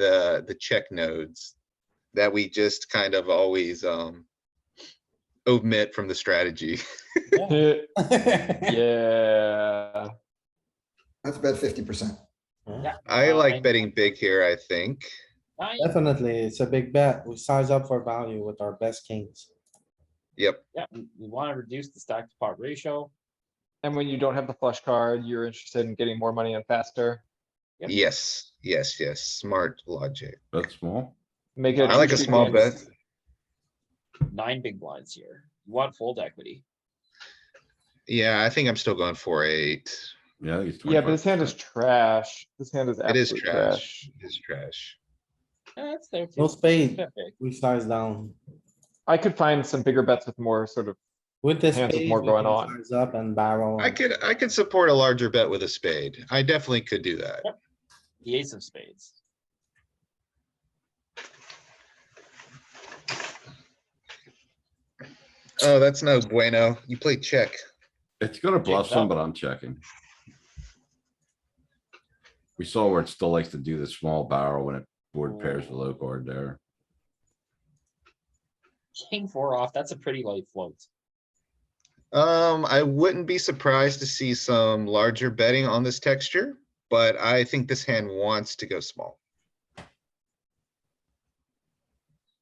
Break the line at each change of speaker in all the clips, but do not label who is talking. the, the check nodes that we just kind of always, um, omit from the strategy.
Yeah,
Yeah,
yeah.
That's about fifty percent.
I
Uh, I-
like betting big here, I think.
Nine,
Definitely, it's a big bet. We size up for value with our best kings.
Yep,
yeah, we we wanna reduce the stack to pot ratio.
And when you don't have the flush card, you're interested in getting more money in faster.
Yep.
yes, yes, yes, smart logic.
That's small.
Make it.
I like a
two-street
small
dance.
bet.
Nine big blinds here. You want fold equity.
Yeah, I think I'm still going four, eight.
Yeah, I think it's
Yeah, but this hand is
25%.
trash. This hand is
It is
absolute
trash.
trash.
It's trash.
Eh, That's there too.
No spade,
That big.
we size down.
I could find some bigger bets with more sort of,
With this.
Hands with more going on.
Size up and barrel.
I could, I could support a larger bet with a spade. I definitely could do that.
The ace of spades.
Oh, that's no bueno. You play check.
It's gonna bluff
up.
some, but I'm checking. We saw where it still likes to do the small barrel when it board pairs the low card there.
King four off, that's a pretty light float.
Um, I wouldn't be surprised to see some larger betting on this texture, but I think this hand wants to go small.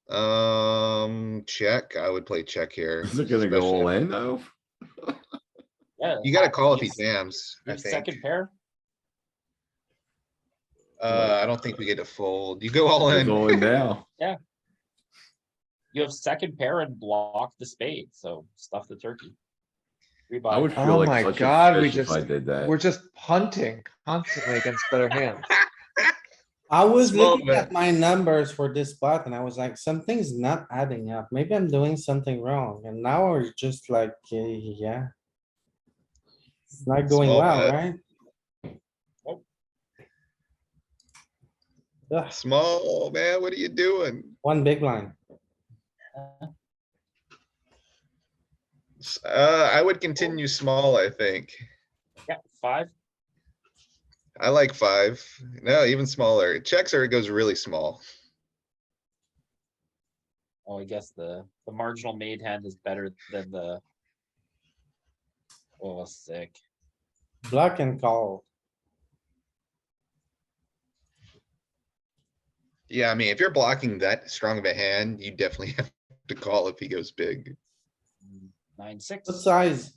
Um, check. I would play check here.
Is it gonna go
especially-
all in though?
Yeah.
You gotta
half
call if he
ace.
jams,
You
I
have
think.
Second pair,
Uh, I don't think we get to fold. You go all
It's
in.
all in now.
you have second pair and block the spade, so stuff the turkey. Three
I would
blinds.
feel
Oh my
like such
God,
a
we
fish if I
just-
did
we're
that.
just punting constantly against better hands.
I was
Small
looking at
bet.
my numbers for this spot and I was like, something's not adding up. Maybe I'm doing something wrong. And now we're just like, eh, yeah. It's not going
Small
well,
bet.
right?
Nope.
Ugh,
Small, man, what are you doing?
one big line.
S- Uh, I would continue small, I think.
Yeah, five,
I like five. No, even smaller. Checks or it goes really small.
Oh, I guess the, the marginal made hand is better than the. Oh, sick.
Block and call.
Yeah, I mean, if you're blocking that strong of a hand, you definitely have to call if he goes big.
Nine, six.
What size?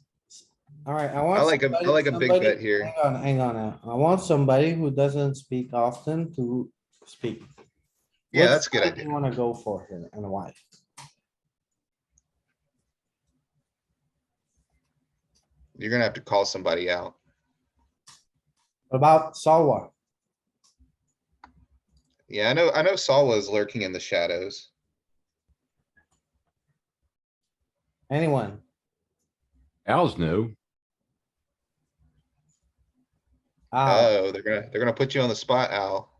Alright, I want.
I like a, I
somebody-
like a big
somebody-
bet here.
Hang on, hang on. uh, I want somebody who doesn't speak often to speak.
Yeah,
What
that's a good
side do
idea.
You wanna go for here and why?
You're gonna have to call somebody out.
About Sawa,
Yeah, I know, I know Saul was lurking in the shadows.
anyone?
Al's new.
Ah,
Oh, they're gonna, they're gonna put you on the spot, Al.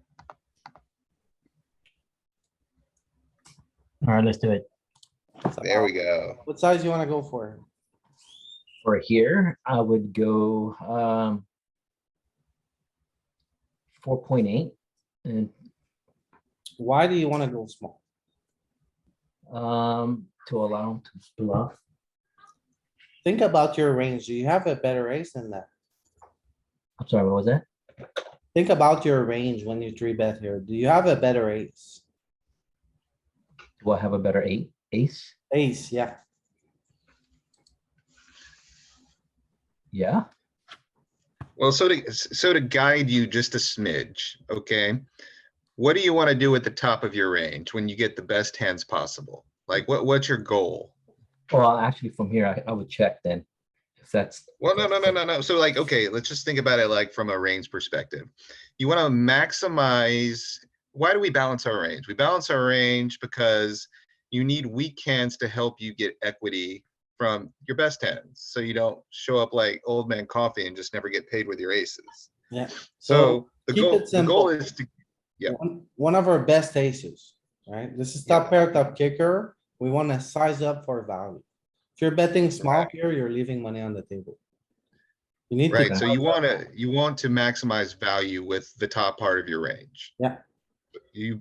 Alright, let's do it.
it's
There
about-
we go.
What size you wanna go for?
For here, I would go, um, four point eight and,
Why do you wanna go small?
um, to allow him to bluff.
Think about your range. Do you have a better ace than that?
I'm sorry, what was that?
Think about your range when you three bet here. Do you have a better ace?
Do I have a better eight, ace?
Ace, yeah.
Yeah,
Well, so to, s- so to guide you just a smidge, okay? What do you wanna do at the top of your range when you get the best hands possible? Like, what, what's your goal?
well, actually from here, I, I would check then, if that's.
Well, no, no, no, no, no. So like, okay, let's just think about it like from a range perspective. You want to maximize, why do we balance our range? We balance our range because you need weak hands to help you get equity from your best hands. So you don't show up like old man coffee and just never get paid with your aces.
Yeah.
So the
keep
goal,
it
the goal
simple.
is to, Yeah.
One- One of our best aces, right? This is
Yeah.
top pair, top kicker. We wanna size up for value. If you're betting small here, you're leaving money on the table. You need
right?
to,
So you want to, you want to maximize value with the top part of your range. you